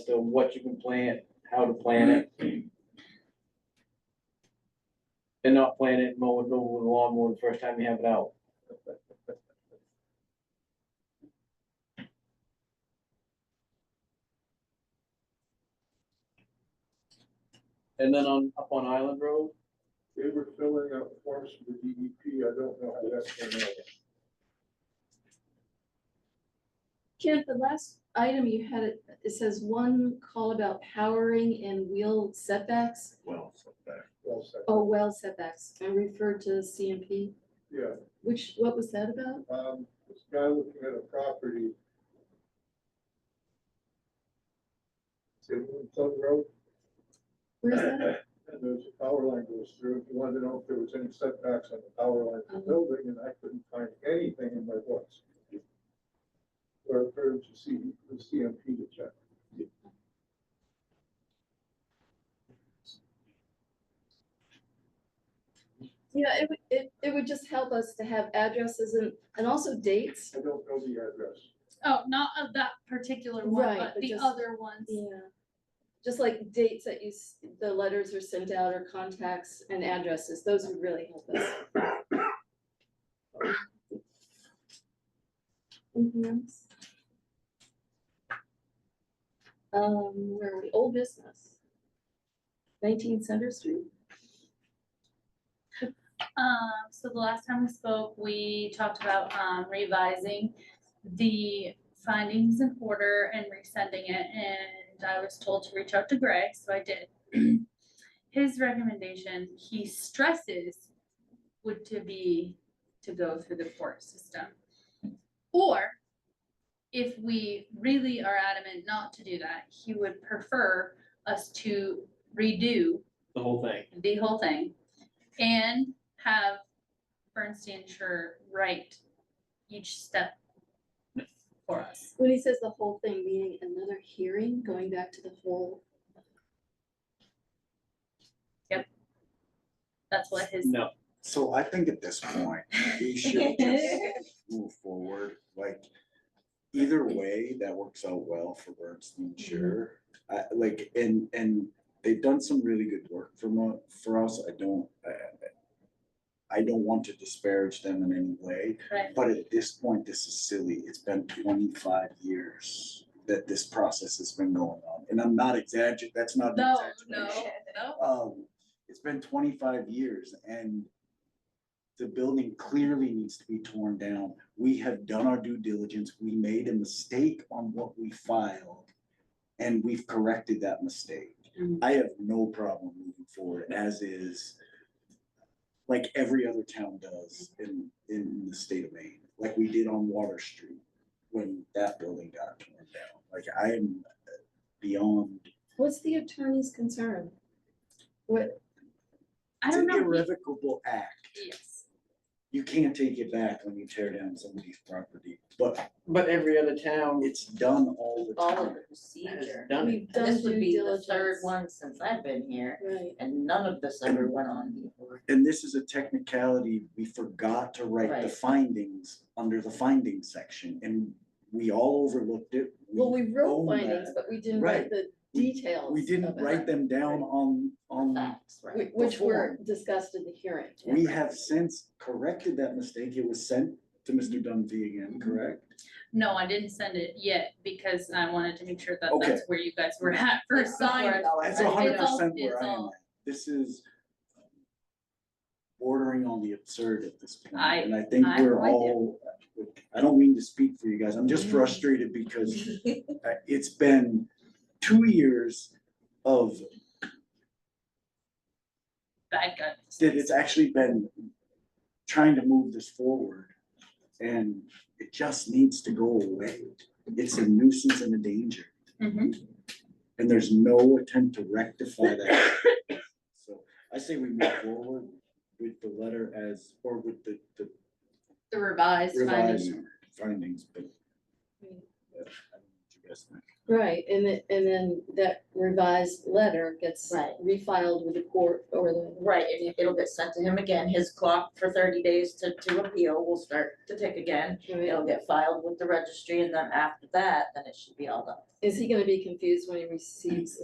to what you can plant, how to plant it. And not plant it, mow it over with a lawnmower the first time you have it out. And then on, up on Island Road, They were filling out forms for the DEP, I don't know how that's gonna happen. Kent, the last item you had, it it says one call about powering and wheel setbacks, Well, so that- Well said. oh, well setbacks, and referred to CMP, Yeah, which, what was that about? um, this guy looking at a property. Say, Plum Road, Where's Uh, that? and there's a power line goes through, if you wanted to know if there was any setbacks on the power line to the building, and I couldn't find anything in my books. Or for to see, the CMP to check. Yeah, it would, it, it would just help us to have addresses and, and also dates. I don't know the address. Oh, not of that particular one, Right, but but the just- other ones. Yeah. Just like dates that you, s- the letters are sent out or contacts and addresses, those would really help us. Anything else? Um, where are we, old business? Nineteen Center Street? Um, so the last time we spoke, we talked about, um, revising the findings and order and resending it, and I was told to reach out to Greg, so I did. His recommendation, he stresses, would to be to go through the court system. Or if we really are adamant not to do that, he would prefer us to redo the whole thing. the whole thing, and have Bernstein sure write each step for us. When he says the whole thing, meaning another hearing, going back to the whole, That's what his, No, So I think at this point, we should just move forward, like, either way, that works out well for Bernstein, Mm-hmm. sure. I like, and, and they've done some really good work for mo- for us, I don't, I, I don't want to disparage them in any way, right, but at this point, this is silly, it's been twenty-five years that this process has been going on, and I'm not exaggerating, that's not an no, exaggeration. no, no, Um, it's been twenty-five years and the building clearly needs to be torn down. We have done our due diligence. We made a mistake on what we filed. And we've corrected that mistake. Mhm. I have no problem moving forward as is. Like every other town does in, in the state of Maine, like we did on Water Street when that building got torn down. Like I am beyond what's the attorney's concern? What, I It's don't an know, irrevocable act. yes, You can't take it back when you tear down somebody's property, but but every other town it's done all the all of time. the has procedure. done it. we've done This would due be the third diligence. one since I've been here, Right, and none of this ever went on before. And this is a technicality, we forgot to write the Right. findings under the findings section, and we all overlooked it. well, we wrote own findings, that. but we didn't write Right. the We- details We didn't of it. write them down on, on, Facts, right? Whi- Which were Before. discussed in the hearing. we have since corrected that mistake, it was sent to Mr. Dunphy again, Mhm. correct? no, I didn't send it yet, because I wanted to make sure that Okay. that's where you guys were at for sign. That's Right, a it's hundred all- percent where it's I am. all- at. This is bordering on the absurd at this point, I- and I think I'm we're with you. all, I don't mean to speak for you guys, I'm just frustrated because uh, it's been two years of, Bad gut. that it's actually been trying to move this forward, and it just needs to go away. It's a nuisance and a danger. Mhm. And there's no attempt to rectify that. So I say we move forward with the letter as, or with the, the The revised findings. revised findings, but. Mm. yeah, I don't know what you guys think. Right, and then, and then that revised letter gets Right. refiled with the court or the, Right, and it- it'll get sent to him again, his clock for thirty days to to appeal will start to tick again. It'll get filed with the registry and then after that, then it should be all done. is he gonna be confused when he receives